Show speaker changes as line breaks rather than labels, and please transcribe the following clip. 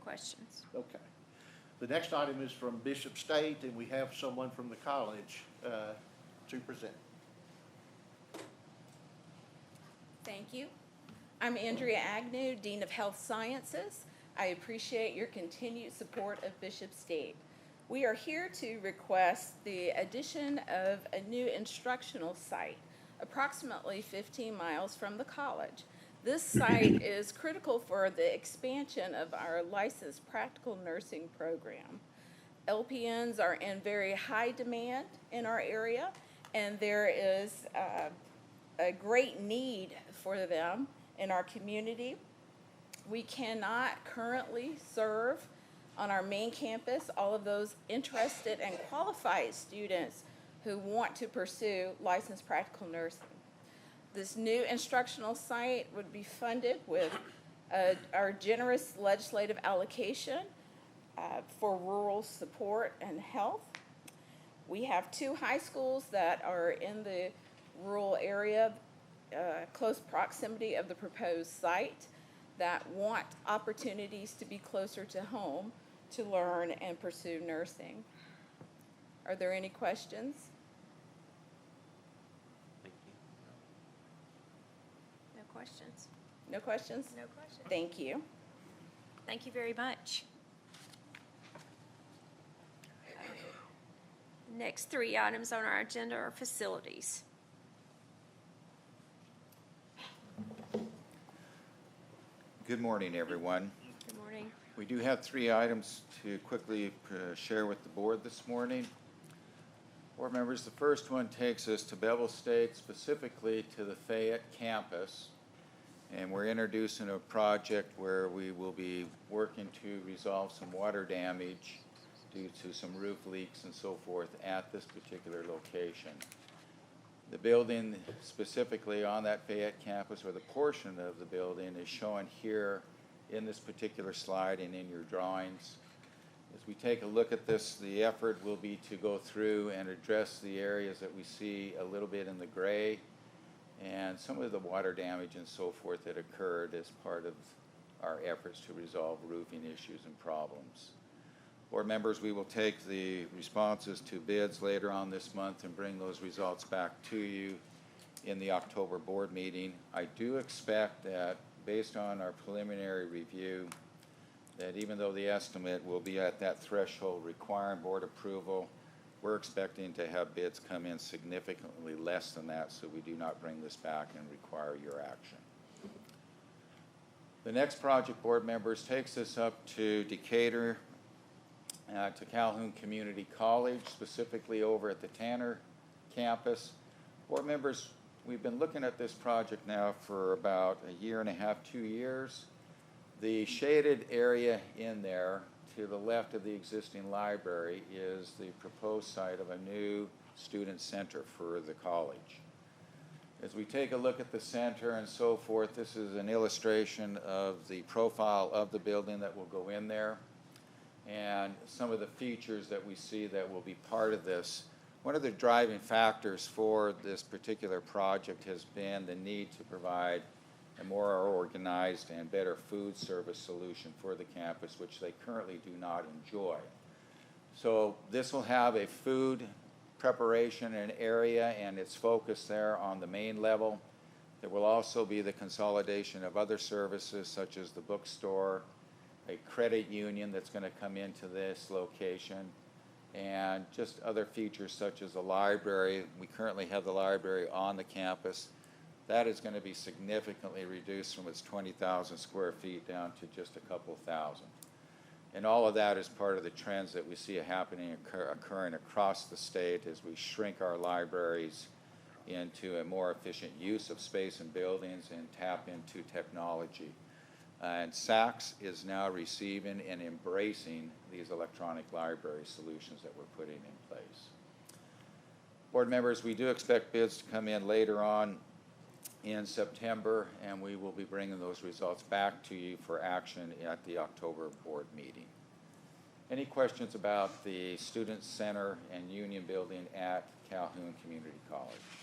questions.
Okay. The next item is from Bishop State, and we have someone from the college uh, to present.
Thank you. I'm Andrea Agnew, Dean of Health Sciences. I appreciate your continued support of Bishop State. We are here to request the addition of a new instructional site approximately 15 miles from the college. This site is critical for the expansion of our licensed practical nursing program. LPNs are in very high demand in our area, and there is uh, a great need for them in our community. We cannot currently serve on our main campus all of those interested and qualified students who want to pursue licensed practical nursing. This new instructional site would be funded with uh, our generous legislative allocation uh, for rural support and health. We have two high schools that are in the rural area, uh, close proximity of the proposed site, that want opportunities to be closer to home to learn and pursue nursing. Are there any questions?
Thank you.
No questions?
No questions?
No questions.
Thank you.
Thank you very much. Next three items on our agenda are facilities.
Good morning, everyone.
Good morning.
We do have three items to quickly uh, share with the board this morning. Board members, the first one takes us to Bevel State, specifically to the Fayette campus. And we're introducing a project where we will be working to resolve some water damage due to some roof leaks and so forth at this particular location. The building specifically on that Fayette campus, or the portion of the building, is shown here in this particular slide and in your drawings. As we take a look at this, the effort will be to go through and address the areas that we see a little bit in the gray and some of the water damage and so forth that occurred as part of our efforts to resolve roofing issues and problems. Board members, we will take the responses to bids later on this month and bring those results back to you in the October board meeting. I do expect that, based on our preliminary review, that even though the estimate will be at that threshold requiring board approval, we're expecting to have bids come in significantly less than that, so we do not bring this back and require your action. The next project, board members, takes us up to Decatur, uh, to Calhoun Community College, specifically over at the Tanner campus. Board members, we've been looking at this project now for about a year and a half, two years. The shaded area in there to the left of the existing library is the proposed site of a new student center for the college. As we take a look at the center and so forth, this is an illustration of the profile of the building that will go in there and some of the features that we see that will be part of this. One of the driving factors for this particular project has been the need to provide a more organized and better food service solution for the campus, which they currently do not enjoy. So this will have a food preparation and area and its focus there on the main level. There will also be the consolidation of other services such as the bookstore, a credit union that's going to come into this location, and just other features such as the library. We currently have the library on the campus. That is going to be significantly reduced from its 20,000 square feet down to just a couple thousand. And all of that is part of the trends that we see happening, occur- occurring across the state as we shrink our libraries into a more efficient use of space and buildings and tap into technology. Uh, And Saks is now receiving and embracing these electronic library solutions that we're putting in place. Board members, we do expect bids to come in later on in September, and we will be bringing those results back to you for action at the October board meeting. Any questions about the Student Center and Union Building at Calhoun Community College?